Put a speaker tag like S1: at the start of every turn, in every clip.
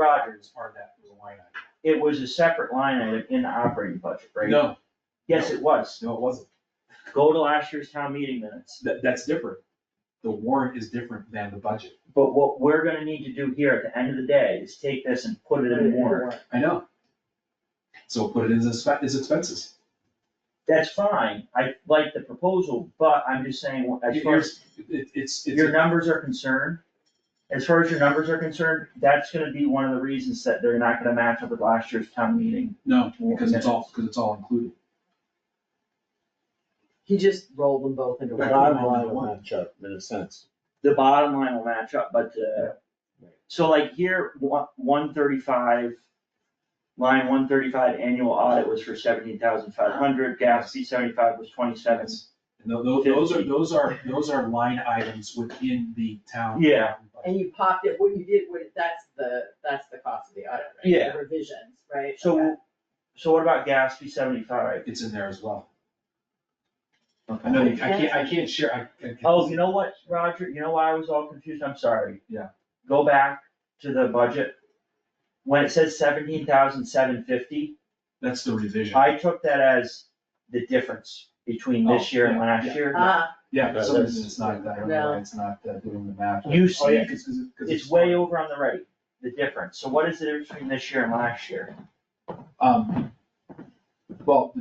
S1: Rogers,
S2: It's part of that, was a line item.
S1: it was a separate line item in the operating budget, right?
S2: No,
S1: Yes, it was.
S2: no, it wasn't.
S1: Go to last year's town meeting minutes.
S2: That, that's different. The warrant is different than the budget.
S1: But what we're gonna need to do here at the end of the day is take this and put it in the warrant.
S2: I know. So put it in as, expe- as expenses.
S1: That's fine. I like the proposal, but I'm just saying, as far as
S2: Here's- it- it's, it's.
S1: your numbers are concerned, as far as your numbers are concerned, that's gonna be one of the reasons that they're not gonna match up with last year's town meeting.
S2: No, because it's all, because it's all included.
S3: He just rolled them both into
S4: The
S3: one.
S4: bottom line will match up in a sense.
S1: The bottom line will match up, but, uh, so like here, one, one thirty-five, line one thirty-five annual audit was for seventeen thousand five hundred, gas B seventy-five was twenty-seven.
S2: And tho- tho- those are,
S1: Fifty.
S2: those are, those are line items within the town.
S1: Yeah.
S3: And you popped it, what you did, what, that's the, that's the cost of the audit, right? The
S1: Yeah.
S3: Revisions, right? Okay.
S1: So, so what about gas B seventy-five?
S2: It's in there as well. I know, you- I can't, I can't share, I. I can't-
S1: Oh, you know what, Roger, you know why I was all confused, I'm sorry.
S2: Yeah.
S1: Go back to the budget, when it says seventeen thousand seven fifty,
S2: That's the revision.
S1: I took that as the difference between this
S2: Oh,
S1: year and
S2: yeah,
S1: last
S2: yeah.
S1: year.
S3: Ah,
S2: Yeah, for
S4: That-
S2: some
S4: that's-
S2: reason it's not, I don't know, why
S3: No.
S2: it's not uh, doing the math.
S1: You
S2: Oh, yeah,
S1: see,
S2: 'cause- 'cause it- 'cause
S1: It's way over on the right, the difference, so what is the difference between this year and last year?
S2: Um, well,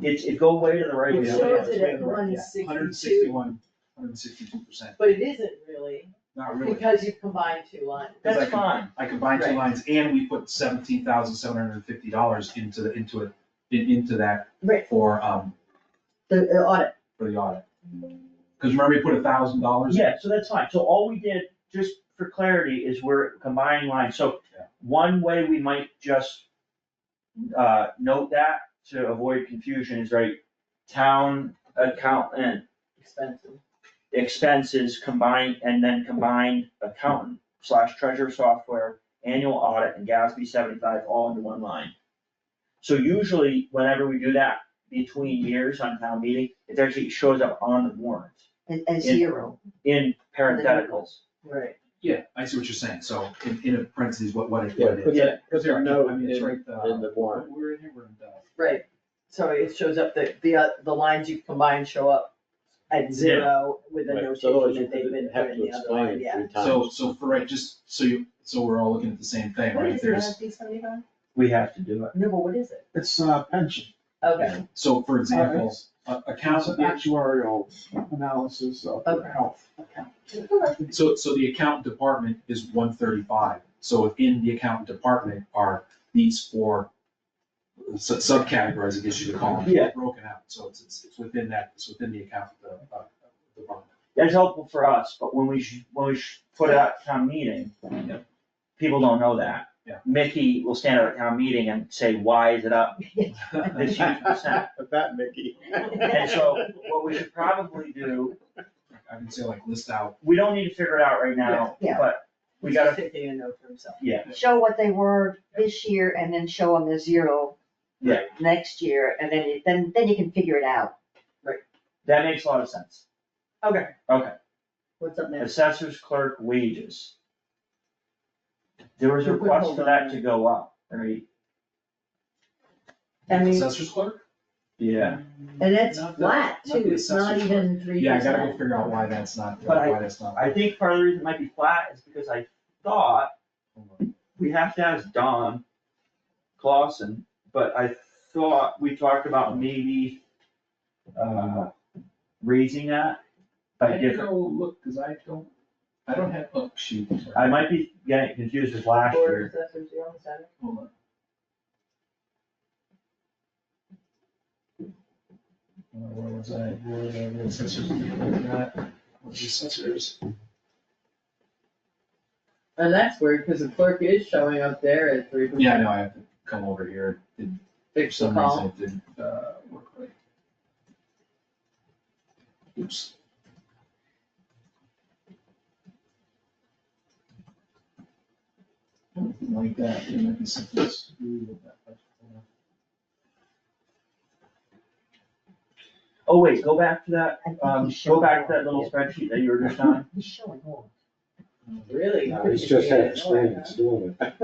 S1: It's, it go way to the right.
S3: It
S1: yeah.
S3: shows it at
S2: Hundred
S3: 162.
S2: sixty-one, hundred sixty-two percent,
S3: but it isn't really,
S2: not really.
S3: because you combined two lines.
S2: Because I
S1: That's
S2: can-
S1: fine,
S2: I combined two
S1: Right.
S2: lines and we put seventeen thousand seven hundred and fifty dollars into the, into it, in- into that
S3: Right.
S2: for, um,
S3: The the audit,
S2: for the audit. Cause remember we put a thousand dollars?
S1: yeah, so that's fine, so all we did, just for clarity, is we're combining lines, so
S2: Yeah.
S1: one way we might just uh, note that to avoid confusion is right, town accountant
S3: expensive.
S1: expenses combined, and then combined accountant slash treasurer software, annual audit, and GASB seventy-five all into one line. So usually, whenever we do that between years on town meeting, it actually shows up on the warrant
S5: And, and
S1: Yeah.
S5: zero.
S1: in parentheticals.
S3: Right.
S2: Yeah, I see what you're saying, so in, in parentheses, what, what it
S4: Yeah,
S2: what it
S4: put
S2: is.
S1: Yeah.
S4: Cause
S2: Here, I
S4: there
S2: can-
S4: no
S2: I
S4: in,
S2: mean, it's right,
S4: in
S2: uh,
S4: the warrant.
S2: We're in here, we're in uh, the.
S3: Right, so it shows up, the, the, uh, the lines you've combined show up at zero with a
S4: Right, so
S3: notation
S4: otherwise you
S3: that they've been
S4: couldn't
S3: put
S4: have
S3: in
S4: to
S3: the other line,
S4: explain
S3: yeah.
S4: three times.
S2: So, so for right, just, so you, so we're all looking at the same thing, right? There's-
S1: We have to do it.
S3: No, but what is it?
S6: It's uh, pension,
S3: Okay,
S2: So for example, a-
S6: it's an
S2: accountant,
S6: actuarial analysis of
S3: Okay.
S6: health.
S2: so, so the accountant department is one thirty-five. So within the accountant department are these four su- subcategories, I guess you could call them.
S1: Yeah.
S2: Broken out, so it's, it's, it's within that, it's within the accountant, uh, uh, department.
S1: That's helpful for us, but when we, sh- when we sh- put it out at town meeting,
S2: Yeah.
S1: people don't know that.
S2: Yeah.
S1: Mickey will stand at a town meeting and say, why is it up this huge percent?
S4: But that, Mickey.
S1: And so what we should probably do,
S2: I can say like list out,
S1: we don't need to figure it out right now,
S5: Yeah.
S1: but we
S3: he's
S1: gotta,
S3: just taking a note for himself.
S1: yeah,
S5: Show what they were this year and then show them the zero.
S1: Yeah.
S5: Next year, and then, you- then, then you can figure it out.
S1: that makes a lot of sense.
S3: Okay.
S1: Okay.
S3: What's up next?
S1: Assessors clerk wages. There was a request for that to go up, right?
S3: I mean,
S2: assessor's clerk?
S1: Yeah.
S5: And that's
S2: Not the-
S5: flat
S2: not the
S5: too, it's not
S2: assessor's
S5: even three
S2: Yeah, I gotta go
S5: percent.
S2: figure out why that's not,
S1: But I-
S2: why that's not.
S1: I think part of the reason it might be flat is because I thought we have to ask Don Clausen, but I thought we talked about maybe uh raising that by
S2: I did
S1: different,
S2: go look, cause I don't, I don't have, oh, shoot.
S1: I might be getting confused with last
S3: board
S1: year.
S3: assessors, you almost had it.
S2: Hold on. Uh, Where was I? Where was I? The Assessors. Not- was the Assessors.
S3: And that's weird, because the clerk is showing up there at three percent.
S2: Yeah, I know, I have to come over here. It- For
S3: Fix the
S2: some
S3: column.
S2: reason, it didn't, uh, work right. Oops. Something Like that, there might be something screwed with that.
S1: Oh, wait, go back to that,
S5: I think
S1: um,
S5: he's
S1: go
S5: showing
S1: back to
S5: more.
S1: that little spreadsheet that you were just on.
S5: He's showing more.
S7: Really?
S3: He's just had experience doing it.